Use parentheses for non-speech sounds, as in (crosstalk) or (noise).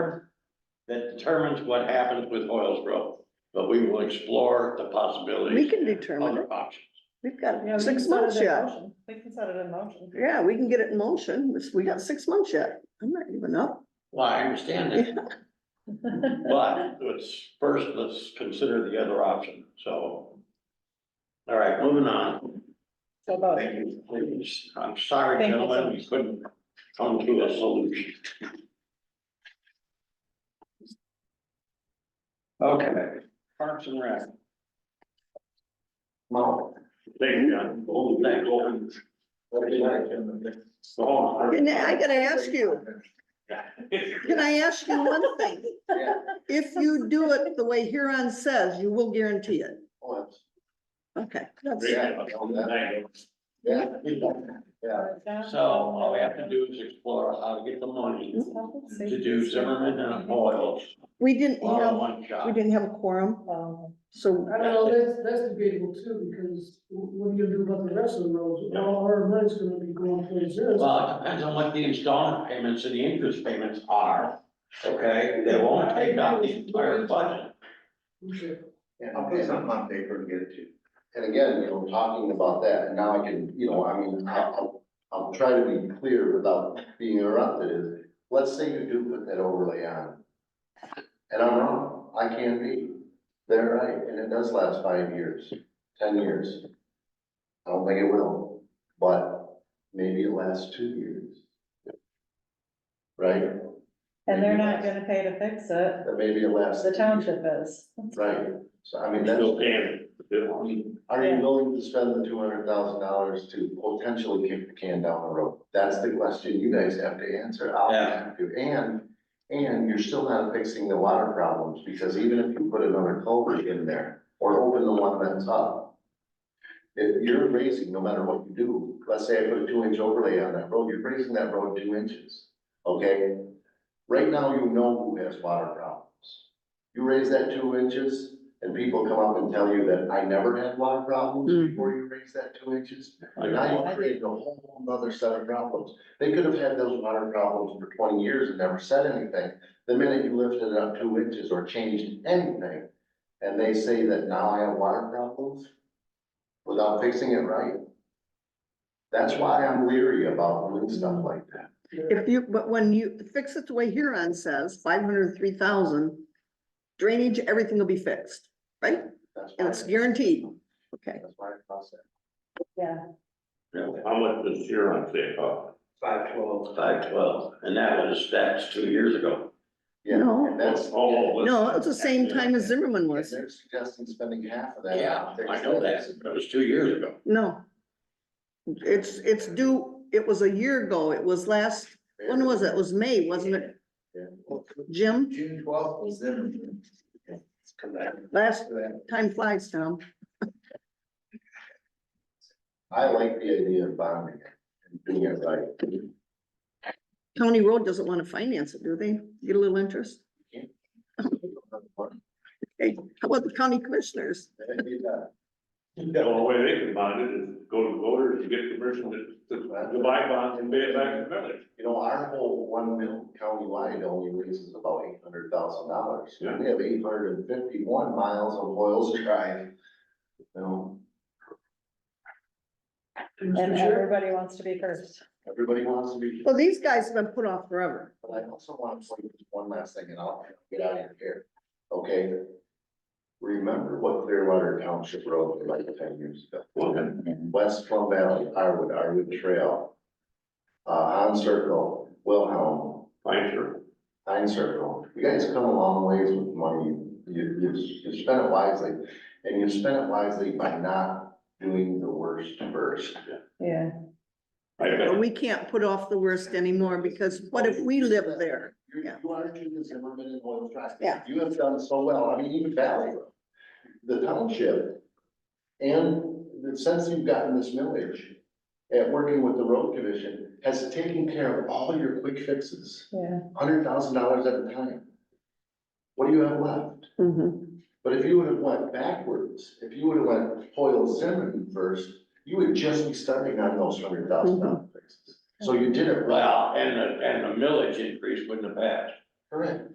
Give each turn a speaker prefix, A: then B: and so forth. A: that determines what happens with Hoyle'sboro. But we will explore the possibilities.
B: We can
A: and
B: determine
A: other
B: it.
A: options.
B: We've
C: Yeah, we
B: got
C: can
B: six
C: set it
B: months
C: in
B: yet.
C: motion. We can set it in motion.
B: Yeah, we can get it in motion. It's- We got six months yet. I'm not giving up.
A: Well, I understand that, but let's, first, let's consider the other option, so. All right, moving on.
C: (laughs) So about
A: Thank you, please. I'm sorry,
C: Thank you so
A: gentlemen, we
C: much.
A: couldn't come to a solution. Okay, Parks and Rec. Mo. Thank you, John. Oh, thank you. So,
B: And I gotta ask you, can I ask you one thing?
D: Yeah.
B: If you do it the way Huron says, you will guarantee it. Okay. that's-
D: Yeah. Yeah.
A: (laughs) So all we have to do is explore how to get the money to do Zimmerman and Hoyles
B: We didn't
C: Oh,
A: all in
B: have,
A: one
B: we
A: shot.
B: didn't have a quorum,
C: Um,
B: so
E: I don't know, that's, that's debatable too, because wh- what are you gonna do about the rest of the roads? All our money's gonna be going towards this.
A: Well, it depends on what the installment payments and the interest payments are, okay? They won't take out the entire budget.
E: Okay.
D: Yeah, I'll put something on paper to get it to you. And again, you know, talking about that, and now I can, you know, I mean, I'll, I'll, I'll try to be clear without being interrupted is, let's say you do put that overlay on. And I'm wrong, I can't be. They're right, and it does last five years, ten years. I don't think it will, but maybe it lasts two years. Right?
C: And they're not gonna pay to fix it,
D: That maybe it lasts.
C: the township is.
D: Right, so I mean, that's.
A: Still paying it.
D: Are you
C: Yeah.
D: willing to spend the two hundred thousand dollars to potentially kick the can down the road? That's the question you guys have to answer. I'll
A: Yeah.
D: have to, and, and you're still not fixing the water problems, because even if you put another culvert in there, or open the one that's up. If you're raising, no matter what you do, let's say I put a two inch overlay on that road, you're raising that road two inches, okay? Right now, you know who has water problems. You raise that two inches, and people come up and tell you that I never had water problems
B: Mhm.
D: before you raised that two inches.
A: Like,
D: Now
C: I
D: you created a whole other set of problems. They could have had those water problems for twenty years and never said anything. The minute you lifted it up two inches or changed anything, and they say that now I have water problems without fixing it right. That's why I'm leery about doing stuff like that.
B: if you, but when you fix it the way Huron says, five hundred and three thousand, drainage, everything will be fixed, right?
D: That's why.
B: And it's guaranteed. Okay,
D: That's why I process.
C: Yeah.
A: How much does Huron say, oh?
D: Five twelve.
A: Five twelve, and that was, that's two years ago.
D: Yeah,
B: No.
D: and that's.
A: Oh,
B: no, it's the same time as Zimmerman
D: They're
B: was.
D: suggesting spending half of that.
A: Yeah, I know that, but it was two years ago.
B: No. It's, it's due, it was a year ago. It was last, when was it? It was May, wasn't it,
D: Yeah.
B: Jim?
D: June twelfth was then.
B: Last time flies, Tom.
D: I like the idea of bonding it and doing it right.
B: (laughs)
D: You
B: County Road doesn't want to finance it, do they? Get a little interest? Hey, how about the county commissioners?
F: Yeah, well, the way they can bond it is go to voters and get permission to, to to buy bonds and pay it back to the village.
D: You know, our whole one mill countywide only raises about eight hundred thousand dollars. We
F: Yeah.
D: have eight hundred and fifty-one miles of oils drive. You know,
C: And
E: Mr. Chair,
C: everybody wants to be first.
D: everybody wants to be.
B: Well, these guys have been put off forever.
D: But I also want to say just one last thing and I'll get out of here, okay? Remember what Clearwater Township Road was like ten years ago. West Plum Valley, Harwood, Harwood Trail. Uh, Han Circle, Wilhelm,
F: Fine, sure.
D: Pine Circle. You guys come a long ways with money. You, you, you spent it wisely. And you spent it wisely by not doing the worst first.
C: Yeah.
F: I
B: But
F: got,
B: we can't put off the worst anymore because what if we live there?
D: You,
B: Yeah.
D: you are Judith Zimmerman and Oil Drive.
B: Yeah.
D: You have done so well, I mean, even Valley Road, the township, and since you've gotten this millage, at working with the road commission, has taken care of all your quick fixes,
C: Yeah,
D: hundred thousand dollars at a time. What do you have left?
B: Mhm.
D: But if you would have went backwards, if you would have went Hoyle Zimmerman first, you would just be starting on those hundred thousand dollar fixes. So you did it right,
A: Well, and the, and the millage increase wouldn't have passed.
D: correct?